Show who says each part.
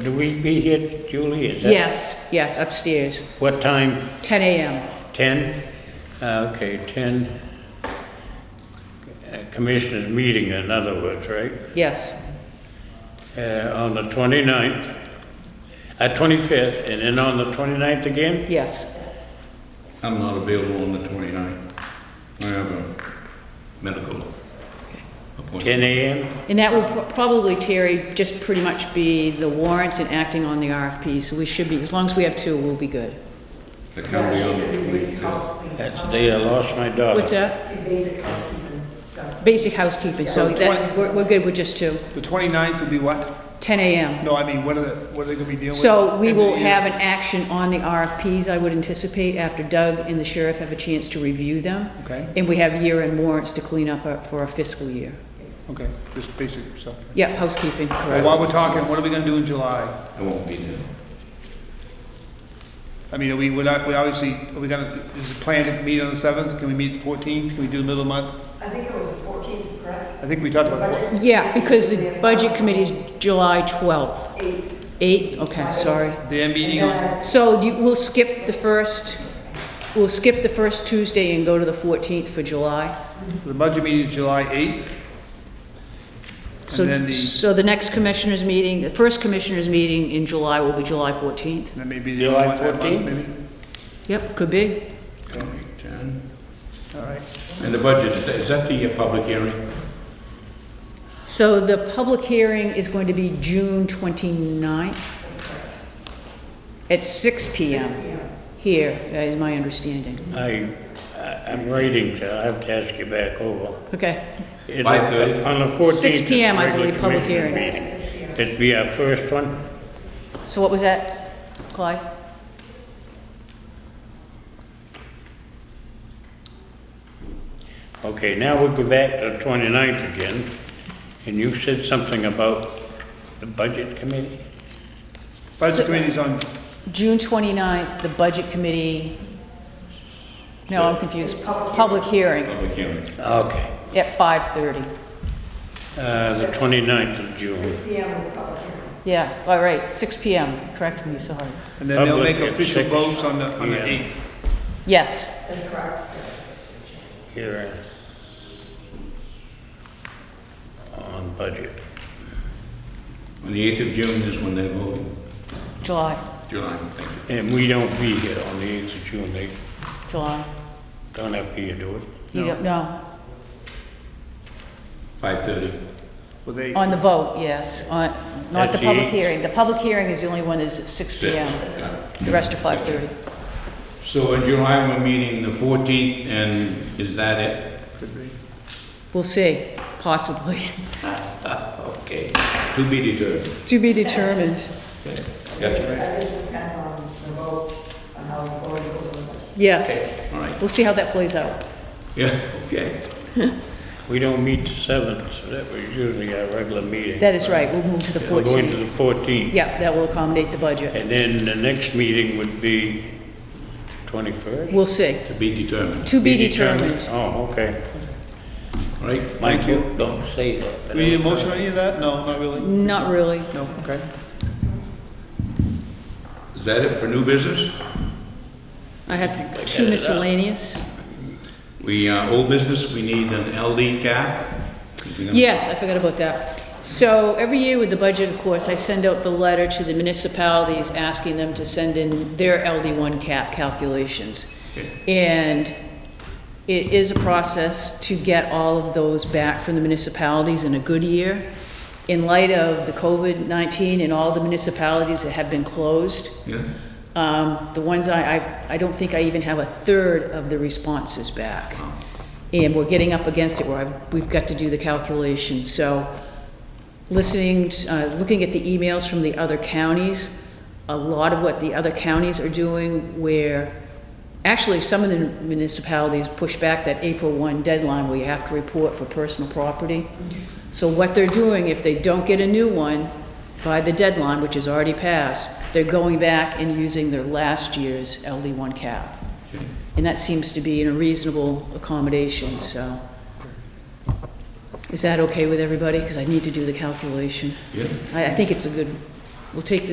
Speaker 1: do we be here, Julie? Is that-
Speaker 2: Yes, yes, upstairs,
Speaker 1: What time?
Speaker 2: 10 a.m.
Speaker 1: Ten? Uh, Okay, ten. Uh, Commissioners' meeting, in other words, right?
Speaker 2: Yes,
Speaker 1: Uh, on the twenty-ninth, uh, twenty-fifth, and then on the twenty-ninth again?
Speaker 2: yes.
Speaker 3: I'm not available on the 29th. I have a medical appointment.
Speaker 1: Ten AM?
Speaker 2: And that will pro- probably, Terry, just pretty much be the warrants and acting on the RFP, so we should be, as long as we have two, we'll be good.
Speaker 3: The county on the 25th.
Speaker 1: That's the day I lost my
Speaker 4: Uh-huh.
Speaker 1: daughter.
Speaker 2: What's that?
Speaker 5: Basic housekeeping stuff.
Speaker 2: Basic housekeeping, so
Speaker 4: So
Speaker 2: that, we're, we're good with just two,
Speaker 4: The 29th would be what?
Speaker 2: 10 a.m.
Speaker 4: No, I mean, what are the, what are they gonna be dealing with?
Speaker 2: So we
Speaker 4: End of
Speaker 2: will
Speaker 4: the year?
Speaker 2: have an action on the RFPs, I would anticipate, after Doug and the sheriff have a chance to review them.
Speaker 4: Okay.
Speaker 2: And we have year-end warrants to clean up our- for our fiscal year.
Speaker 4: Okay, just basic stuff.
Speaker 2: Yep, housekeeping,
Speaker 4: Well,
Speaker 2: correct.
Speaker 4: while we're talking, what are we gonna do in July?
Speaker 3: I won't be there.
Speaker 4: I mean, are we, we're not, we obviously, are we gonna, is it planned to meet on the 7th? Can we meet the 14th? Can we do the middle of the month?
Speaker 5: I think it was the 14th, correct?
Speaker 4: I think we talked about it.
Speaker 5: Budget
Speaker 2: Yeah, because the budget committee is July 12th.
Speaker 5: 8.
Speaker 2: 8, okay, sorry.
Speaker 4: Their meeting,
Speaker 5: And
Speaker 4: on-
Speaker 5: then
Speaker 2: So you, we'll skip the first, we'll skip the first Tuesday and go to the 14th for July.
Speaker 4: the budget meeting is July 8th.
Speaker 2: So,
Speaker 4: And then the,
Speaker 2: so the next commissioners meeting, the first commissioners meeting in July will be July 14th.
Speaker 4: that may be the
Speaker 1: July
Speaker 4: only one that month,
Speaker 1: 14th?
Speaker 4: maybe?
Speaker 2: Yep, could be.
Speaker 3: County 10.
Speaker 4: All right.
Speaker 3: And the budget, is that- is that the uh, public hearing?
Speaker 2: So the public hearing is going to be June 29th at 6 PM here, that is my understanding.
Speaker 1: I, I- I'm waiting, so I have to ask you back over.
Speaker 2: Okay,
Speaker 1: It's
Speaker 3: 5:30?
Speaker 1: On the fourteenth.
Speaker 2: 6 PM, I believe, public hearing.
Speaker 1: That'd be our first one?
Speaker 2: so what was that, Clyde?
Speaker 1: Okay, now we go back to the 29th again, and you said something about the budget committee?
Speaker 4: Budget committee's on,
Speaker 2: June 29th, the budget committee, no, I'm confused, public hearing
Speaker 3: Public hearing.
Speaker 1: Okay.
Speaker 2: at 5:30.
Speaker 1: Uh, the 29th of June.
Speaker 5: PM is the public hearing.
Speaker 2: Yeah, all right, 6 PM, correct me, sorry.
Speaker 4: and then they'll
Speaker 1: Public
Speaker 4: make
Speaker 1: at
Speaker 4: official
Speaker 1: six.
Speaker 4: votes on the, on the
Speaker 1: Yeah.
Speaker 4: 8th.
Speaker 2: Yes,
Speaker 5: That's correct.
Speaker 1: hearing on budget.
Speaker 3: On the 8th of June is when they're voting.
Speaker 2: July,
Speaker 3: July, thank you.
Speaker 1: And we don't be here on the 8th of June, they
Speaker 2: July.
Speaker 1: don't have to be here, do we?
Speaker 2: You don't, no,
Speaker 3: 5:30.
Speaker 4: Well, they,
Speaker 2: on the vote, yes, on, not the
Speaker 1: That's
Speaker 2: public
Speaker 1: eight.
Speaker 2: hearing. The public hearing is the only one that's at 6
Speaker 3: Six.
Speaker 2: PM.
Speaker 3: Got it.
Speaker 2: The rest are 5:30.
Speaker 3: So in July, we're meeting the 14th, and is that it?
Speaker 4: could be.
Speaker 2: We'll see, possibly.
Speaker 3: Okay. To be determined.
Speaker 2: To be determined.
Speaker 3: Gotcha.
Speaker 5: That is depends on the votes, on how the voting goes on the budget.
Speaker 2: Yes,
Speaker 3: All right.
Speaker 2: we'll see how that plays out.
Speaker 3: Yeah, okay.
Speaker 1: We don't meet the 7th, so that was usually our regular meeting. Uh,
Speaker 2: That is right, we'll move to the
Speaker 1: We're going to
Speaker 2: 14th.
Speaker 1: the 14th,
Speaker 2: Yeah, that will accommodate the budget.
Speaker 1: and then the next meeting would be 21st?
Speaker 2: We'll see.
Speaker 3: To be determined.
Speaker 2: To be determined.
Speaker 1: Oh, okay.
Speaker 3: All right.
Speaker 1: Thank you. Don't say that.
Speaker 4: Do we need a motion on any of that? No, not really?
Speaker 2: Not really.
Speaker 4: No, okay.
Speaker 3: Is that it for new business?
Speaker 2: I have two miscellaneous.
Speaker 3: We, uh, old business, we need an LD cap. We're gonna-
Speaker 2: Yes, I forgot about that. So every year with the budget, of course, I send out the letter to the municipalities asking them to send in their LD1 cap calculations. And it is a process to get all of those back from the municipalities in a good year. In light of the COVID-19 and all the municipalities that have been closed,
Speaker 3: Yeah,
Speaker 2: um, The ones I, I, I don't think I even have a third of the responses back. And we're getting up against it where I've, we've got to do the calculation. So listening, t- uh, looking at the emails from the other counties, a lot of what the other counties are doing where, actually, some of the municipalities push back that April 1 deadline where you have to report for personal property. So what they're doing, if they don't get a new one by the deadline, which is already passed, they're going back and using their last year's LD1 cap. And that seems to be in a reasonable accommodation, so. Is that okay with everybody? Because I need to do the calculation.
Speaker 3: yeah.
Speaker 2: I, I think it's a good, we'll take the